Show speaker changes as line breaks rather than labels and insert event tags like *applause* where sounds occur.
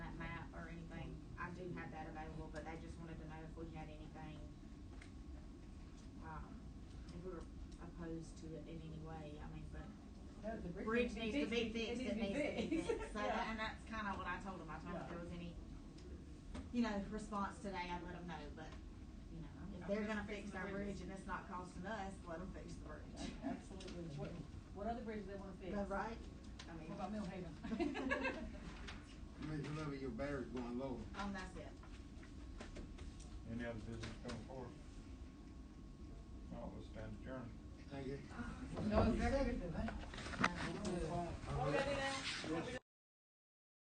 we had anything, um, if we were opposed to it in any way, I mean, but
No, the
bridge needs to be fixed, it needs to be fixed. So,
Yeah.
that- and that's kinda what I told them, I told them if there was any, you know, response today, I'd let them know, but, you know, if they're gonna fix our bridge and it's not costing us, let them fix the bridge.
Ab- Absolutely. What, what other bridges they wanna fix?
Is that right? I mean.
What
*laughs*
about Millhaven?
Miss Lily, your battery's going low.
Um, that's it.
Any other business coming forward? All will stand adjourned.
Thank you.
*laughs*
No executive, huh?
Um,
What we gotta do now?